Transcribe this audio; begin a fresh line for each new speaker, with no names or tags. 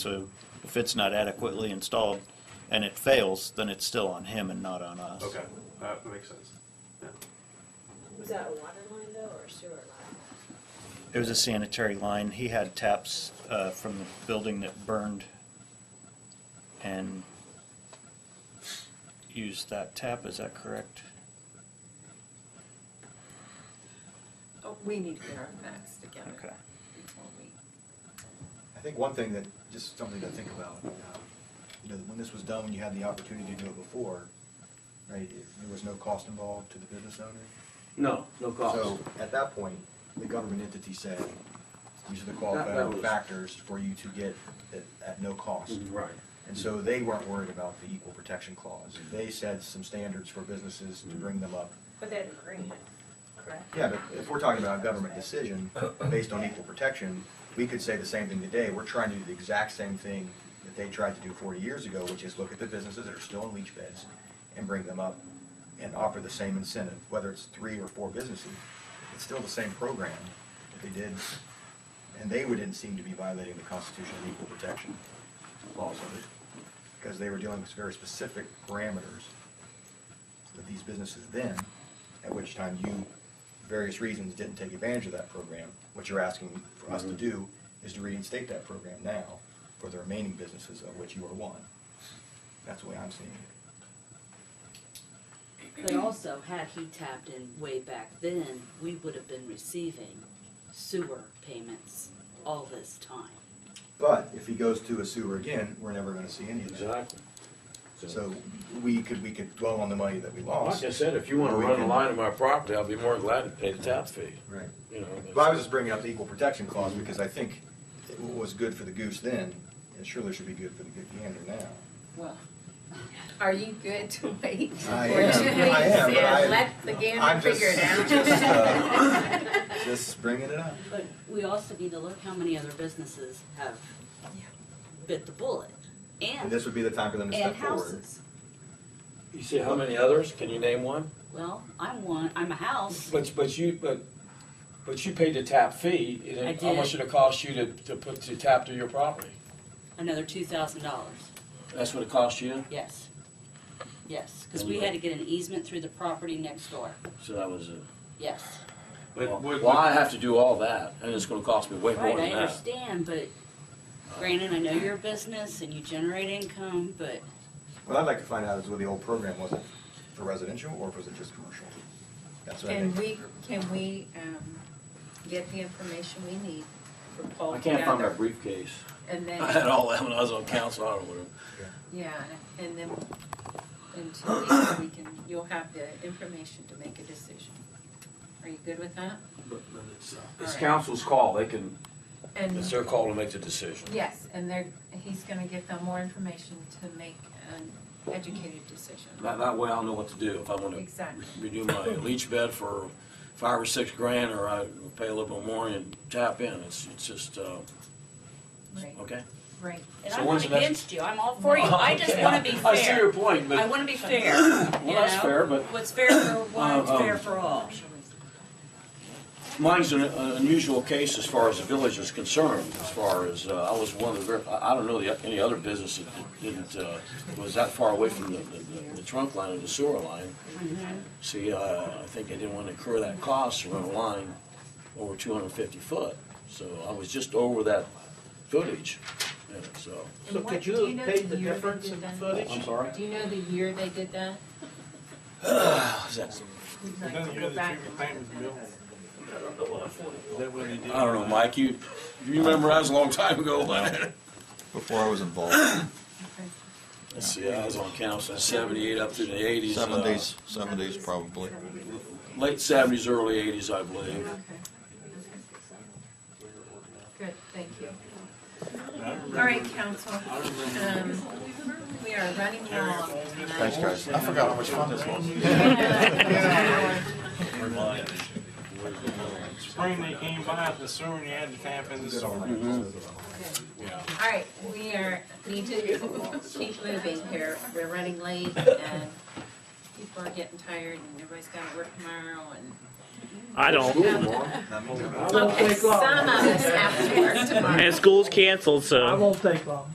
So if it's not adequately installed and it fails, then it's still on him and not on us.
Okay, that makes sense. Yeah.
Was that a water line though, or a sewer line?
It was a sanitary line. He had taps uh, from the building that burned and used that tap, is that correct?
Oh, we need to get our facts together.
Okay.
before we-
I think one thing that, just something to think about, um, you know, when this was done, when you had the opportunity to do it before, right, if there was no cost involved to the business owner.
No, no cost.
So at that point, the government entity said, these are the
That- that
qualifying
was- Mm-hmm.
factors for you to get at, at no cost.
Right.
And so they weren't worried about the equal protection clause. They said some standards for businesses
Mm-hmm.
to bring them up.
But that agreement, correct?
Yeah, but if we're talking about a government decision based on equal protection, we could say the same thing today. We're trying to do the exact same thing that they tried to do forty years ago, which is look at the businesses that are still in leach beds and bring them up and offer the same incentive, whether it's three or four businesses. It's still the same program that they did, and they wouldn't seem to be violating the Constitution of Equal Protection laws of it, because they were dealing with very specific parameters with these businesses then, at which time you, various reasons, didn't take advantage of that program. What you're asking for
Mm-hmm.
us to do is to reinstate that program now for the remaining businesses of which you are one. That's the way I'm seeing it.
But also, had he tapped in way back then, we would have been receiving sewer payments all this time.
But if he goes to a sewer again, we're never gonna see any of that.
Exactly.
So we could, we could dwell on the money that we lost.
Like I said, if you wanna
Or we
run a
can-
line on my property, I'll be more than glad to pay the tap fee,
Right.
you know.
But I was just bringing up the equal protection clause because I think it was good for the goose then, it surely should be good for the good gander now.
Well, are you good to wait?
I
for
am,
two
I
weeks
am, but
and
I-
Let the gander
I'm just-
figure
just,
it
uh,
out.
Just bringing it up.
But we also need to look how many other businesses have bit the bullet
And
and,
this would be the time for them to
and
step forward.
houses.
You see how many others? Can you name one?
Well, I'm one, I'm a house.
But, but you, but, but you paid the tap fee, and
I
then how
did.
much did it cost you to, to put, to tap to your property?
Another two thousand dollars,
That's what it cost you?
yes. Yes, because we had to get an easement through the property next door,
So that was it.
yes.
But would-
Well, I have to do all that, and it's gonna cost me way more
Right, I
than that.
understand, but Brandon, I know you're a business and you generate income, but
What I'd like to find out is what the old program was, it for residential or was it just commercial? That's what I
Can
think.
we, can we, um, get the information we need for Paul
I
to
can't find my
gather?
briefcase.
And
I had
then,
all that when I was on council, I don't know where.
yeah, and then in two weeks, we can, you'll have the information to make a decision. Are you good with that?
But but it's, uh, it's
Alright.
council's call, they can,
And
it's their call to make the decision.
Yes, and they're, he's gonna give them more information to make an educated decision.
That, that way I'll know what to do, if I wanna
Exactly.
redo my leach bed for five or six grand, or I pay a little bit more and tap in, it's, it's just, uh,
Right,
okay?
right.
And
So
I'm
when's
not
the next-
against you, I'm all for you, I just
Okay,
wanna be
I see your
fair.
point,
I
but,
wanna be fair, you
well, that's
know?
fair, but
What's fair for
Uh,
one, is fair
um,
for all.
mine's an an unusual case as far as the village is concerned, as far as, uh, I was one of the, ver- I I don't know the, any other business that didn't, uh, was that far away from the, the- the trunk line or the sewer line. See, uh, I think I didn't want to incur that cost to run a line over two hundred and fifty foot, so I was just over that footage, you know, so.
And
So
what-
could
do
you
know
have paid
the
the
year they
difference
did
in the
that?
I'm
footage?
sorry?
Do you know the year they did that?
Is that-
We'd like
Then
to
you
go
know the
back
two
and look at
things,
that.
Bill. Is that what they did?
I don't know, Mike, you, you remember that was a long time ago, wasn't it?
Before I was involved,
Okay.
Let's see, I was on council in seventy-eight up through the eighties.
uh,
uh,
seventies probably.
Late seventies, early eighties, I believe.
Okay. Good, thank you.
I remember-
All right, council,
I remember.
um, we are running long
Thanks,
tonight.
guys. I forgot how much fun this was.
Spring they came by, the sewer, and you had to tap in the sewer.
Mm-hmm.
All right, we are, need to keep moving here. We're running late and people are getting tired and everybody's gotta work tomorrow and.
I don't.
Okay, some of us have to work tomorrow.
And school's canceled, so.
I won't take long.